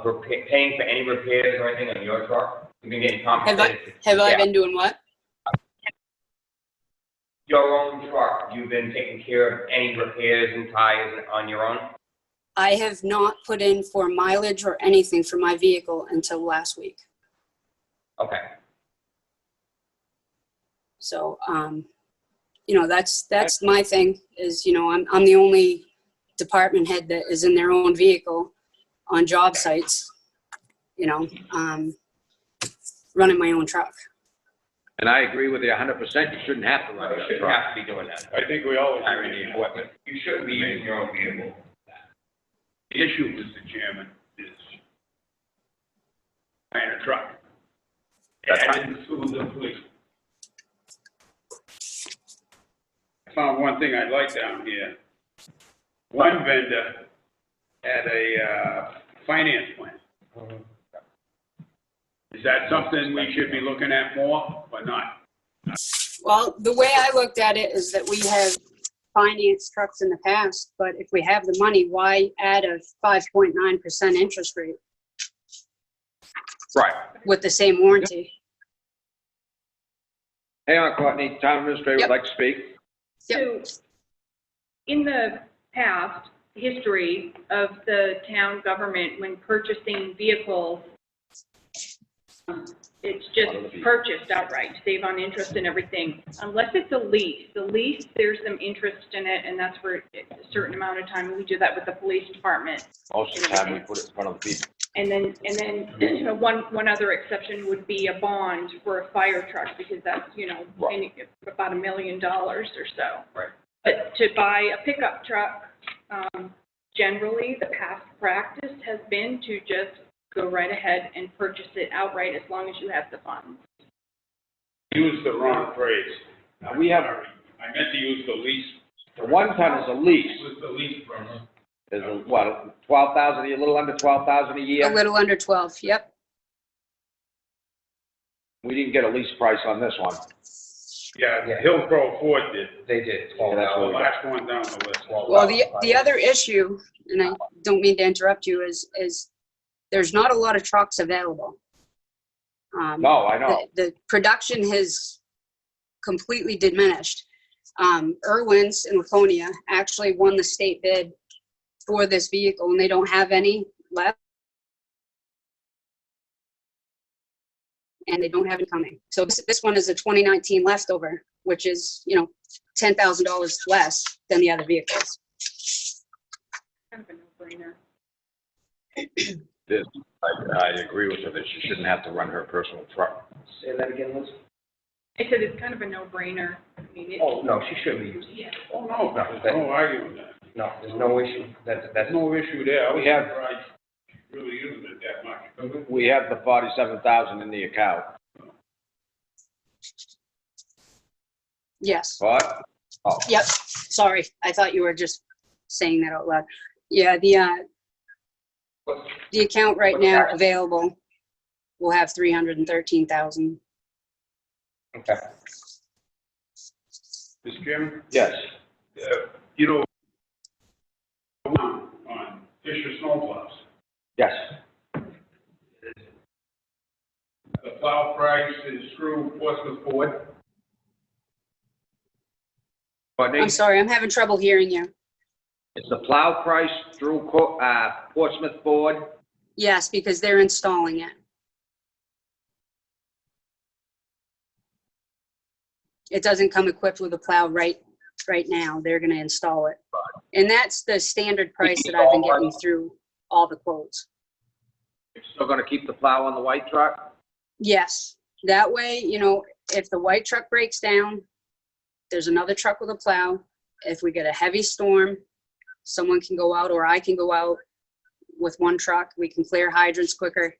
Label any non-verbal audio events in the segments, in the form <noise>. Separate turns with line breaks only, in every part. repa- paying for any repairs or anything on your truck? You've been getting compensated?
Have I
Yeah.
been doing what?
Your own truck, you've been taking care of any repairs and tires on your own?
I have not put in for mileage or anything for my vehicle until last week.
Okay,
So, um, you know, that's, that's my thing is, you know, I'm, I'm the only department head that is in their own vehicle on job sites, you know, um, running my own truck.
And I agree with you hundred percent, you shouldn't have to
well,
run
you
that
shouldn't
truck.
have to be doing that.
I think we always.
I really equipment. You shouldn't be using your own vehicle.
The issue, Mr. Chairman, is buying a truck.
That's right.
Adding to the fleet. I found one thing I like down here. One vendor had a, uh, finance plan. Is that something we should be looking at more or not?
Well, the way I looked at it is that we have financed trucks in the past, but if we have the money, why add a 5.9% interest rate
Right.
with the same warranty?
Hang on, Courtney, town administrator would
Yep.
like to speak.
So, in the past history of the town government, when purchasing vehicles, um, it's just purchased outright, save on interest and everything, unless it's a lease. The lease, there's some interest in it, and that's for a certain amount of time. We do that with the police department.
Most
of the time, we
put it in front of the people.
And then, and then <clears throat> one, one other exception would be a bond for a fire truck because that's, you know,
Right.
any- about a million dollars or so.
Right.
But to buy a pickup truck, um, generally, the past practice has been to just go right ahead and purchase it outright as long as you have the funds.
Use the wrong phrase.
Now, we have-
I meant to use the lease,
One ton is a lease,
was the lease phrase.
is a, what, twelve thousand, a little under twelve thousand a
A
year?
little under 12, yep.
We didn't get a lease price on this one.
Yeah, Hillcrow Ford did.
They did.
Yeah, that's
The
what we got.
Uh, last one down the list.
Well, the, the other issue, and I don't mean to interrupt you, is, is there's not a lot of trucks available. Um,
No, I know.
the- The production has completely diminished. Um, Irwin's in Laconia actually won the state bid for this vehicle and they don't have any left. And they don't have it coming. So this, this one is a 2019 leftover, which is, you know, $10,000 less than the other vehicles.
Kind of a no-brainer.
I, I agree with her that she shouldn't have to run her personal truck.
Say that again, Liz?
I said it's kind of a no-brainer. I mean, it-
Oh, no, she shouldn't be using it.
Oh, no, there's no arguing that.
No, there's no issue. That, that's.
There's no issue there. I was
We have-
surprised you really using it that much.
We have the forty-seven thousand in the account.
Yes.
What? Oh,
Yep, sorry. I thought you were just saying that out loud. Yeah, the, uh,
What's-
the account right now available will have 313,000.
Okay.
Mr. Chairman,
yes.
uh, you know, on on Fisher snowplows,
Yes.
the plow price is screw Portsmouth Ford.
Courtney,
I'm sorry, I'm having trouble hearing you.
is the plow price through, Co- uh, Portsmouth Ford?
Yes, because they're installing it. It doesn't come equipped with a plow right, right now. They're gonna install it. And that's the standard price that I've been getting through all the quotes.
Still gonna keep the plow on the white truck?
Yes, that way, you know, if the white truck breaks down, there's another truck with a plow. If we get a heavy storm, someone can go out or I can go out with one truck. We can clear hydrants quicker.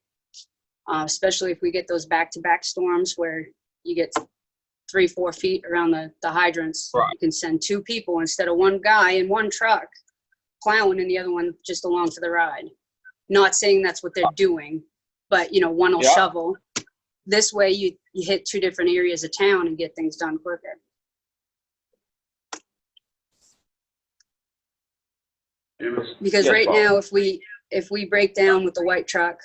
Uh, especially if we get those back-to-back storms where you get three, four feet around the, the hydrants. You can send two people instead of one guy in one truck plowing and the other one just along for the ride. Not saying that's what they're doing, but you know, one will
Yeah.
shovel. This way you, you hit two different areas of town and get things done quicker.
It was
Because
Yes,
right
Bob.
now, if we, if we break down with the white truck,